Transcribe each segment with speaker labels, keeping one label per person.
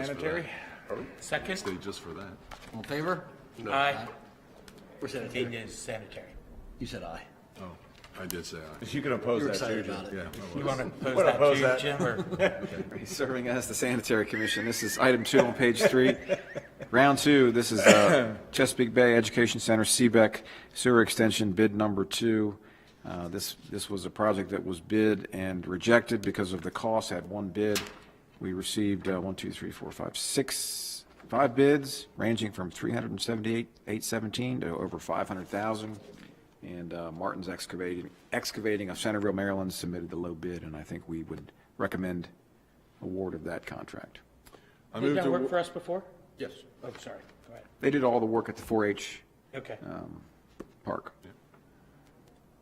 Speaker 1: Sanitary?
Speaker 2: Second?
Speaker 3: Stay just for that.
Speaker 1: All in favor?
Speaker 2: Aye.
Speaker 1: Or
Speaker 2: It
Speaker 1: sanitary?
Speaker 2: is sanitary.
Speaker 1: You said aye.
Speaker 3: Oh, I did say aye.
Speaker 4: You can oppose
Speaker 1: You're
Speaker 4: that too,
Speaker 1: excited
Speaker 4: Jim.
Speaker 1: about it.
Speaker 3: Yeah. I
Speaker 2: You
Speaker 3: was.
Speaker 2: want to
Speaker 4: Wanna oppose
Speaker 2: pose that
Speaker 4: that?
Speaker 2: too, Jim, or?
Speaker 5: Serving as the sanitary commission. This is item two on page three. Round two, this is uh, Chesapeake Bay Education Center, Seebeck Sewer Extension, bid number two. Uh, This, this was a project that was bid and rejected because of the cost, had one bid. We received uh, one, two, three, four, five, six, five bids, ranging from 378, 817 to over 500,000. And uh, Martin's Excavating, Excavating of Centerville, Maryland submitted the low bid, and I think we would recommend award of that contract.
Speaker 3: I
Speaker 2: Did
Speaker 3: moved
Speaker 2: that
Speaker 3: to,
Speaker 2: work for
Speaker 3: wa-
Speaker 2: us before? Yes. Oh, sorry. Go ahead.
Speaker 5: They did all the work at the 4-H
Speaker 2: Okay.
Speaker 5: park.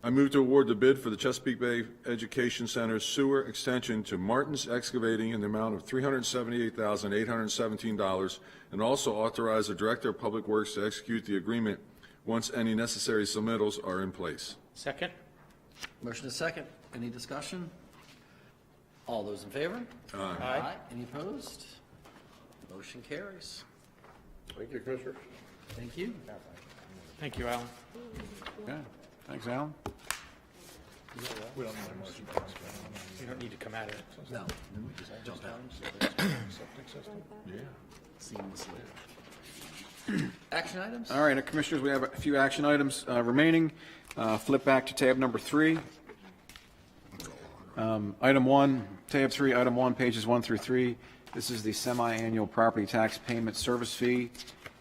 Speaker 3: I moved to award the bid for the Chesapeake Bay Education Center sewer extension to Martin's Excavating in the amount of $378,817, and also authorize the Director of Public Works to execute the agreement once any necessary submittals are in place.
Speaker 2: Second?
Speaker 1: Motion is second. Any discussion? All those in favor?
Speaker 2: Aye.
Speaker 1: Any opposed? Motion carries.
Speaker 4: Thank you, Commissioner.
Speaker 1: Thank you.
Speaker 2: Thank you, Alan.
Speaker 5: Okay, thanks, Alan.
Speaker 2: You don't need to come out of it.
Speaker 1: No. Jump out. Action items?
Speaker 5: All right, now, Commissioners, we have a few action items uh, remaining. Uh, Flip back to tab number three. Um, Item one, tab three, item one, pages one through three. This is the semi-annual property tax payment service fee.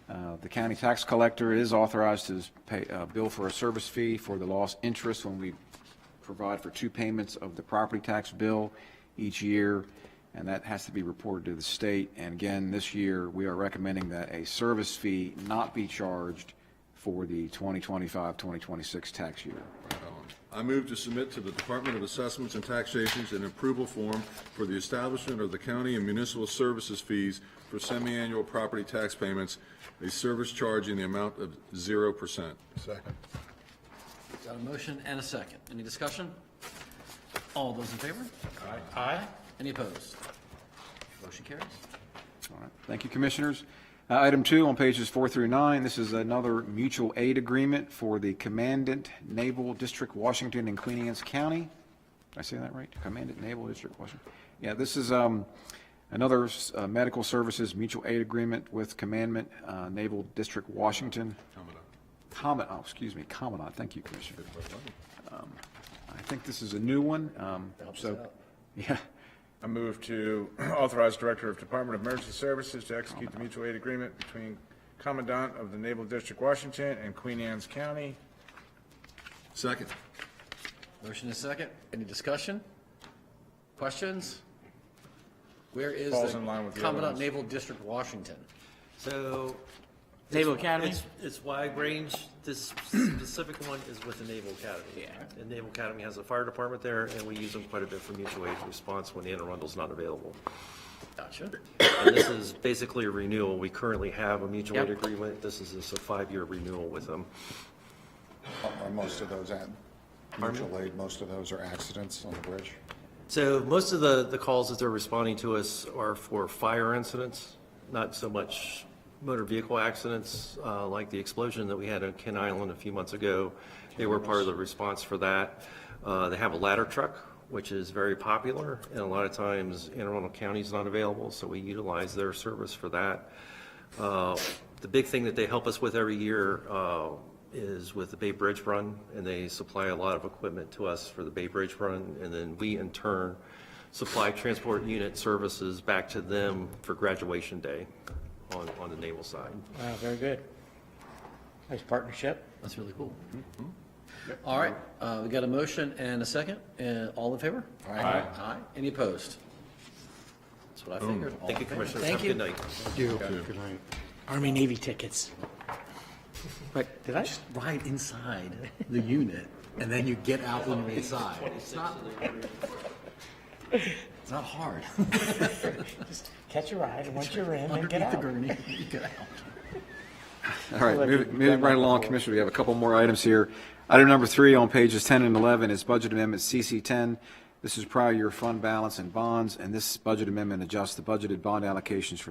Speaker 5: Uh, The county tax collector is authorized to pay, uh, bill for a service fee for the lost interest when we provide for two payments of the property tax bill each year, and that has to be reported to the state. And again, this year, we are recommending that a service fee not be charged for the 2025, 2026 tax year.
Speaker 3: I move to submit to the Department of Assessments and Taxations an approval form for the establishment of the county and municipal services fees for semi-annual property tax payments, a service charge in the amount of zero percent.
Speaker 4: Second.
Speaker 1: Got a motion and a second. Any discussion? All those in favor?
Speaker 2: Aye.
Speaker 1: Any opposed? Motion carries.
Speaker 5: All right. Thank you, Commissioners. Uh, Item two on pages four through nine, this is another mutual aid agreement for the Commandant Naval District, Washington, and Queen Anne's County. Did I say that right? Commandant Naval District, Washington. Yeah, this is um, another uh, medical services mutual aid agreement with Commandant uh, Naval District, Washington. Commandant, oh, excuse me, Commandant, thank you, Commissioner. Um, I think this is a new one, um, so, yeah.
Speaker 4: I move to authorize Director of Department of Emergency Services to execute the mutual aid agreement between Commandant of the Naval District, Washington, and Queen Anne's County.
Speaker 3: Second.
Speaker 1: Motion is second. Any discussion? Questions? Where is
Speaker 4: Falls
Speaker 1: the
Speaker 4: in line with the other
Speaker 1: Commandant
Speaker 4: ones.
Speaker 1: Naval District, Washington?
Speaker 6: So
Speaker 2: Naval Academy?
Speaker 6: it's, it's wide range. This specific one is with the Naval Academy. Yeah. And Naval Academy has a fire department there, and we use them quite a bit for mutual aid response when Anne Arundel's not available.
Speaker 1: Gotcha.
Speaker 6: And this is basically a renewal. We currently have a mutual aid
Speaker 2: Yep.
Speaker 6: agreement. This is just a five-year renewal with them.
Speaker 7: Are most of those at mutual aid, most of those are accidents on the bridge?
Speaker 6: So most of the, the calls that they're responding to us are for fire incidents, not so much motor vehicle accidents, uh, like the explosion that we had on Ken Island a few months ago. They were part of the response for that. Uh, They have a ladder truck, which is very popular, and a lot of times Anne Arundel County is not available, so we utilize their service for that. Uh, The big thing that they help us with every year uh, is with the Bay Bridge Run, and they supply a lot of equipment to us for the Bay Bridge Run, and then we in turn supply transport unit services back to them for graduation day on, on the naval side.
Speaker 2: Wow, uh, very good. Nice partnership.
Speaker 1: That's really cool. All right, uh, we got a motion and a second. Uh, All in favor? Aye. Aye. Any opposed? That's what I figured. All
Speaker 6: Thank you,
Speaker 1: in favor.
Speaker 6: Commissioners.
Speaker 1: Thank
Speaker 6: Have a good
Speaker 1: you.
Speaker 6: night.
Speaker 8: Army Navy tickets. Right, did I?
Speaker 1: Ride inside the unit, and then you get out when you're inside. It's not, it's not hard.
Speaker 8: Catch a ride, and once you're in, then get
Speaker 1: Underneath the
Speaker 8: out.
Speaker 1: gurney, you get out.
Speaker 5: All right, moving moving right along, Commissioner, we have a couple more items here. Item number three on pages 10 and 11 is Budget Amendment CC10. This is prior year fund balance and bonds, and this budget amendment adjusts the budgeted bond allocations for